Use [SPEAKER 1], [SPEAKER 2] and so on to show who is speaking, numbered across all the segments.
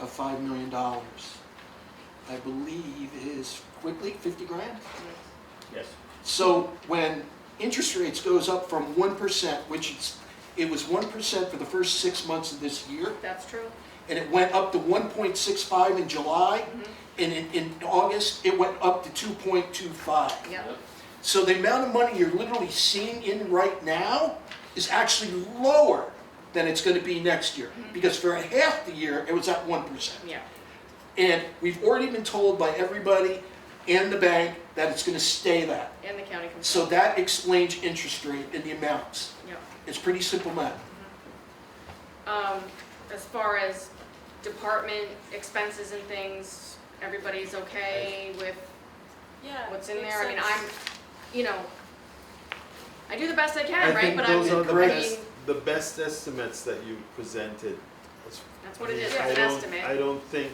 [SPEAKER 1] five million dollars. I believe is quickly fifty grand.
[SPEAKER 2] Yes.
[SPEAKER 1] So when interest rates goes up from one percent, which it's, it was one percent for the first six months of this year,
[SPEAKER 3] That's true.
[SPEAKER 1] and it went up to one point six five in July, and in, in August, it went up to two point two five.
[SPEAKER 3] Yep.
[SPEAKER 1] So the amount of money you're literally seeing in right now is actually lower than it's gonna be next year. Because for a half the year, it was at one percent.
[SPEAKER 3] Yeah.
[SPEAKER 1] And we've already been told by everybody and the bank that it's gonna stay that.
[SPEAKER 3] And the county commission.
[SPEAKER 1] So that explains interest rate and the amounts.
[SPEAKER 3] Yep.
[SPEAKER 1] It's pretty simple math.
[SPEAKER 3] Um, as far as department expenses and things, everybody's okay with
[SPEAKER 4] Yeah.
[SPEAKER 3] what's in
[SPEAKER 4] makes
[SPEAKER 3] there? I mean,
[SPEAKER 4] sense.
[SPEAKER 3] I'm, you know, I do the best I
[SPEAKER 5] I
[SPEAKER 3] can, right?
[SPEAKER 5] think
[SPEAKER 3] But
[SPEAKER 5] those are
[SPEAKER 3] I'm,
[SPEAKER 5] the
[SPEAKER 3] I
[SPEAKER 5] best,
[SPEAKER 3] mean,
[SPEAKER 5] the best estimates that you presented.
[SPEAKER 3] that's what it is,
[SPEAKER 5] I
[SPEAKER 3] it's an
[SPEAKER 5] don't- I
[SPEAKER 3] estimate.
[SPEAKER 5] don't think,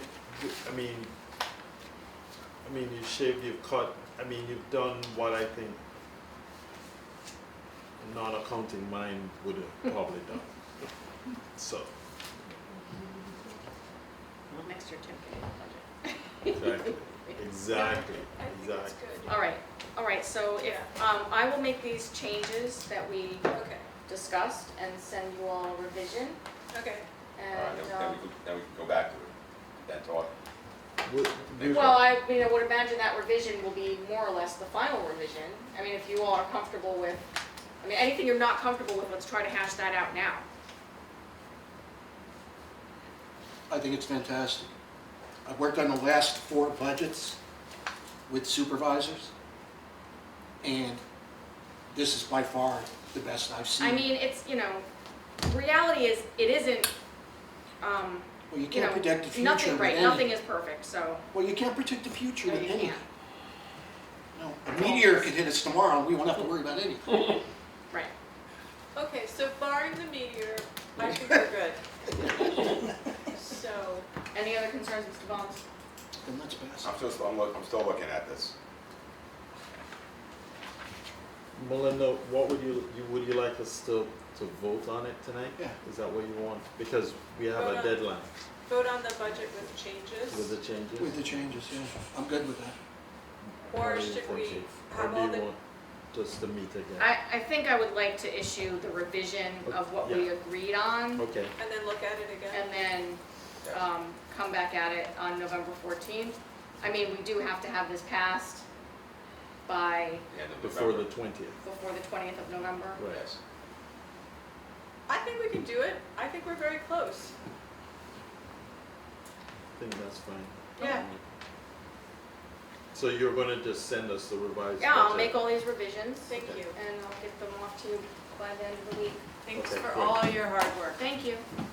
[SPEAKER 5] I mean, I mean, you shaved, you've cut, I mean, you've done what I think a non-accounting mind would have probably done. So,
[SPEAKER 3] Next year, Tim can do the budget.
[SPEAKER 5] exactly, exactly,
[SPEAKER 4] I think it's
[SPEAKER 5] exactly.
[SPEAKER 4] good.
[SPEAKER 3] All right, all right, so if,
[SPEAKER 4] Yeah.
[SPEAKER 3] um, I will make these changes that we
[SPEAKER 4] Okay,
[SPEAKER 3] discussed and send you all a revision
[SPEAKER 4] okay.
[SPEAKER 2] All right,
[SPEAKER 3] and,
[SPEAKER 2] then
[SPEAKER 3] um,
[SPEAKER 2] we can, then we can go back to it, that talk.
[SPEAKER 5] Would-
[SPEAKER 2] Next
[SPEAKER 3] Well, I, mean, I would imagine that revision will be more or less the final revision. I mean, if you all are comfortable with, I mean, anything you're not comfortable with, let's try to hash that out now.
[SPEAKER 1] I think it's fantastic. I've worked on the last four budgets with supervisors, and this is by far the best I've seen.
[SPEAKER 3] I mean, it's, you know, reality is, it isn't, um,
[SPEAKER 1] Well, you
[SPEAKER 3] you
[SPEAKER 1] can't
[SPEAKER 3] know,
[SPEAKER 1] predict the future
[SPEAKER 3] nothing,
[SPEAKER 1] with
[SPEAKER 3] right,
[SPEAKER 1] any-
[SPEAKER 3] nothing is perfect, so,
[SPEAKER 1] Well, you can't predict the future
[SPEAKER 3] No,
[SPEAKER 1] with
[SPEAKER 3] you
[SPEAKER 1] anything.
[SPEAKER 3] can't.
[SPEAKER 1] No, a meteor could hit us tomorrow, and we won't have to worry about anything.
[SPEAKER 3] right.
[SPEAKER 4] Okay, so barring the meteor, I think we're good. So,
[SPEAKER 3] Any other concerns, Mr. Bones?
[SPEAKER 1] Then that's best.
[SPEAKER 2] I'm still, I'm look, I'm still looking at this.
[SPEAKER 5] Melinda, what would you, you, would you like us to, to vote on it tonight?
[SPEAKER 1] Yeah.
[SPEAKER 5] Is that what you want? Because we have
[SPEAKER 4] Vote
[SPEAKER 5] a
[SPEAKER 4] on-
[SPEAKER 5] deadline
[SPEAKER 4] vote on the budget with
[SPEAKER 5] with the
[SPEAKER 4] changes,
[SPEAKER 5] changes.
[SPEAKER 1] With the changes, yeah, I'm good with that.
[SPEAKER 5] Or
[SPEAKER 4] or
[SPEAKER 5] do you
[SPEAKER 4] should
[SPEAKER 5] think
[SPEAKER 4] we
[SPEAKER 5] it-
[SPEAKER 4] have
[SPEAKER 5] Or
[SPEAKER 4] all
[SPEAKER 5] do you
[SPEAKER 4] the,
[SPEAKER 5] want just to meet again?
[SPEAKER 3] I, I think I would like to issue the revision of what we
[SPEAKER 5] Yeah.
[SPEAKER 3] agreed on,
[SPEAKER 5] Okay,
[SPEAKER 4] and then look at it again?
[SPEAKER 3] and then
[SPEAKER 2] Yeah.
[SPEAKER 3] um, come back at it on November 14th. I mean, we do have to have this passed by,
[SPEAKER 2] End of
[SPEAKER 5] before the
[SPEAKER 2] November.
[SPEAKER 5] twentieth,
[SPEAKER 3] before the 20th of November.
[SPEAKER 5] right.
[SPEAKER 2] Yes.
[SPEAKER 4] I think we can do it, I think we're very close.
[SPEAKER 5] I think that's fine.
[SPEAKER 4] Yeah.
[SPEAKER 5] So you're gonna just send us the revised budget?
[SPEAKER 3] Yeah, I'll make all these revisions
[SPEAKER 4] Thank you.
[SPEAKER 3] and I'll get them off to you by the end of the week.
[SPEAKER 4] Thanks
[SPEAKER 5] Okay,
[SPEAKER 4] for
[SPEAKER 5] great.
[SPEAKER 4] all your hard work.
[SPEAKER 3] Thank you.